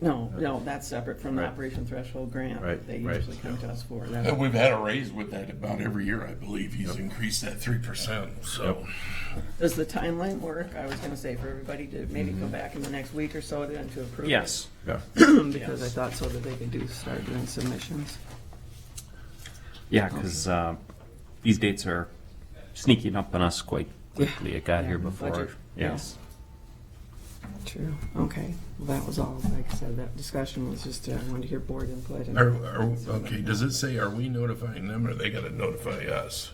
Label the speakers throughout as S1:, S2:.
S1: No, no, that's separate from the
S2: Right.
S1: operation threshold grant
S2: Right,
S1: that they
S2: right,
S1: usually come to us for.
S3: And
S1: That's
S3: Uh, we've had a raise with that about every year, I believe. He's increased that three percent, so.
S1: Does the timeline work? I was gonna say for everybody to maybe come back in the next week or so then to approve. it,
S4: Yes.
S2: Yeah.
S1: Because I thought so that they could do, start doing submissions.
S4: Yeah, because these dates are sneaking up on us quite quickly. It got here before.
S1: Budget,
S4: Yes.
S1: True, okay. Well, that was all, like I said, that discussion was just, uh, I wanted to hear board input and.
S3: Are, are, okay, does it say, are we notifying them or they gotta notify us?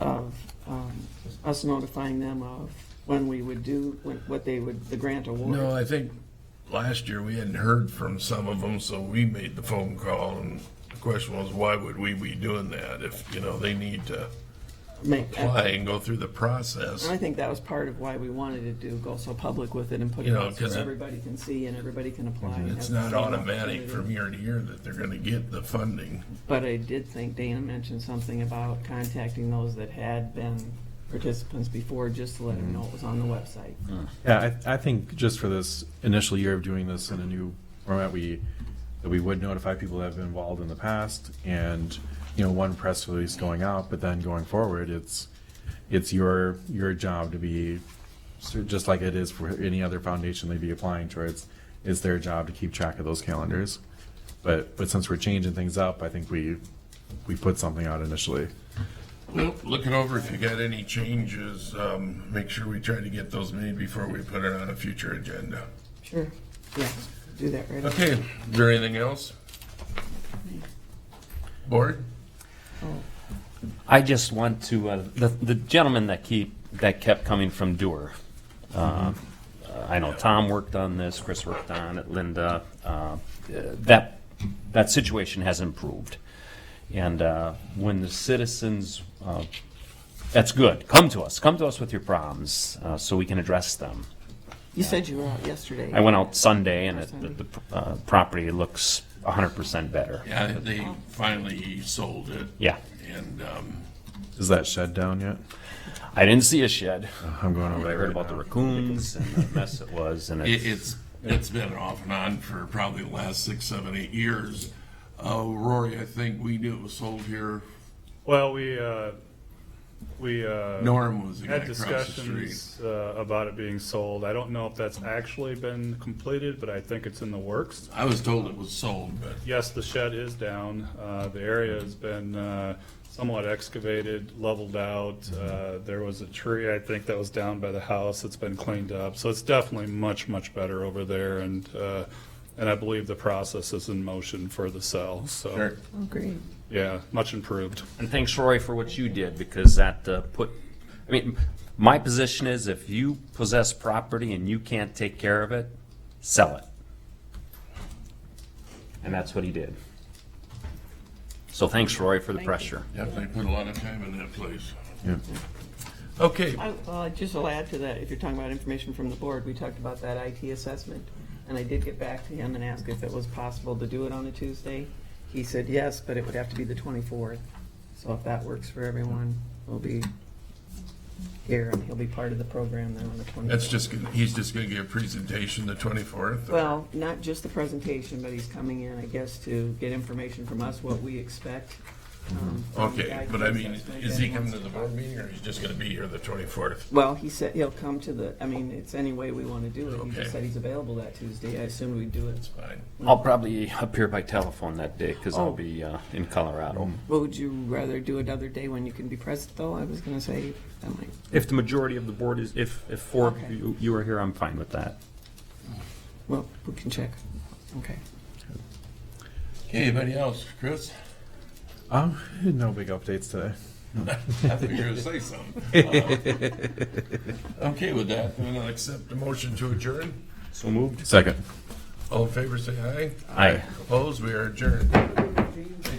S1: of um, us notifying them of when we would do, when- what they would, the grant
S3: No,
S1: award.
S3: I think last year we hadn't heard from some of them, so we made the phone call and the question was, why would we be doing that if, you know, they need to
S1: Make-
S3: apply and go through the process?
S1: And I think that was part of why we wanted to do, go so public with it and put
S3: You
S1: it
S3: know,
S1: out so
S3: 'cause it- Mhm.
S1: everybody can see and everybody can apply. and
S3: It's
S1: have the
S3: not
S1: same
S3: automatic
S1: opportunity.
S3: from year to year that they're gonna get the funding.
S1: But I did think Dana mentioned something about contacting those that had been participants before, just to let
S3: Mhm.
S1: them know it was on the website.
S4: Mm.
S5: Yeah, I, I think just for this initial year of doing this in a new format, we, that we would notify people that have been involved in the past and, you know, one press release going out, but then going forward, it's, it's your, your job to be, so just like it is for any other foundation they'd be applying towards, it's their job to keep track of those calendars. But, but since we're changing things up, I think we, we put something out initially.
S3: Well, look it over if you got any changes, um, make sure we try to get those made before we put it on a future agenda.
S1: Sure. Yes, do that right away.
S3: Okay, is there anything else? Board?
S1: Oh,
S3: Uh,
S4: I just want to, uh, the the gentleman that keep, that kept coming from Dewar. uh, uh, I know Tom worked on this, Chris worked on it, Linda. uh, uh, That, that situation has improved. And uh, when the citizens uh, That's good. Come to us. Come to us with your problems uh, so we can address them.
S1: You said you were out yesterday.
S4: I went out Sunday and it, the, the uh, property looks 100% better.
S3: Yeah, they finally sold it.
S4: Yeah.
S3: And, um,
S5: Is that shed down yet?
S4: I didn't see a shed.
S5: I'm going over
S4: I
S5: there
S4: heard
S5: right
S4: about the
S5: now.
S4: raccoons and the mess it was. And
S3: it,
S4: it's,
S3: it's, it's been off and on for probably the last six, seven, eight years. Uh, Rory, I think we knew it was sold here.
S6: Well, we, uh, we, uh.
S3: Norm was the guy
S6: Had
S3: across the street.
S6: discussions, uh, about it being sold. I don't know if that's actually been completed, but I think it's in the works.
S3: I was told it was sold, but
S6: Yes, the shed is down. Uh, the area has been, uh, somewhat excavated, leveled out. Uh, there was a tree, I think, that was down by the house. It's been cleaned up. So it's definitely much, much better over there and, uh, and I believe the process is in motion for the sale, so,
S3: Sure.
S1: Oh, great.
S6: yeah, much improved.
S4: and thanks, Roy, for what you did because that uh, put, I mean, my position is if you possess property and you can't take care of it, sell it. And that's what he did. So thanks, Roy, for the pressure.
S3: definitely put a lot of time in that place.
S5: Yeah.
S3: Okay,
S1: I, well, just will add to that, if you're talking about information from the board, we talked about that IT assessment, and I did get back to him and ask if it was possible to do it on a Tuesday. He said yes, but it would have to be the twenty-fourth, so if that works for everyone, we'll be here, and he'll be part of the program then on the twenty-fourth.
S3: that's just, gonna- he's just gonna give a presentation the twenty-fourth?
S1: Well, not just the presentation, but he's coming in, I guess, to get information from us, what we expect. um, from the
S3: Okay,
S1: IT
S3: but I mean,
S1: assessment
S3: is
S1: that
S3: he coming
S1: wants
S3: to the
S1: talk
S3: board meeting or he's just gonna be here the twenty-fourth?
S1: Well, he said he'll come to the, I mean, it's any way we want to do it. He
S3: Okay.
S1: just said he's available that Tuesday. I assumed we'd do it.
S3: Fine.
S4: I'll probably appear by telephone that day because
S1: Oh.
S4: I'll be uh, in
S3: Mm-hmm.
S4: Colorado.
S1: What would you rather do another day when you can be present, though? I was going to say, that might,
S4: If the majority of the board is, if, if four of
S1: Okay.
S4: you- you are here, I'm fine with that.
S1: well, we can check. Okay.
S3: Okay, anybody else? Chris?
S5: Um, no big updates today.
S3: I think you were gonna say something. Okay with that, then I'll accept the motion to adjourn.
S4: So moved?
S5: Second.
S3: All in favor, say aye.
S4: Aye.
S3: Opposed, we are adjourned.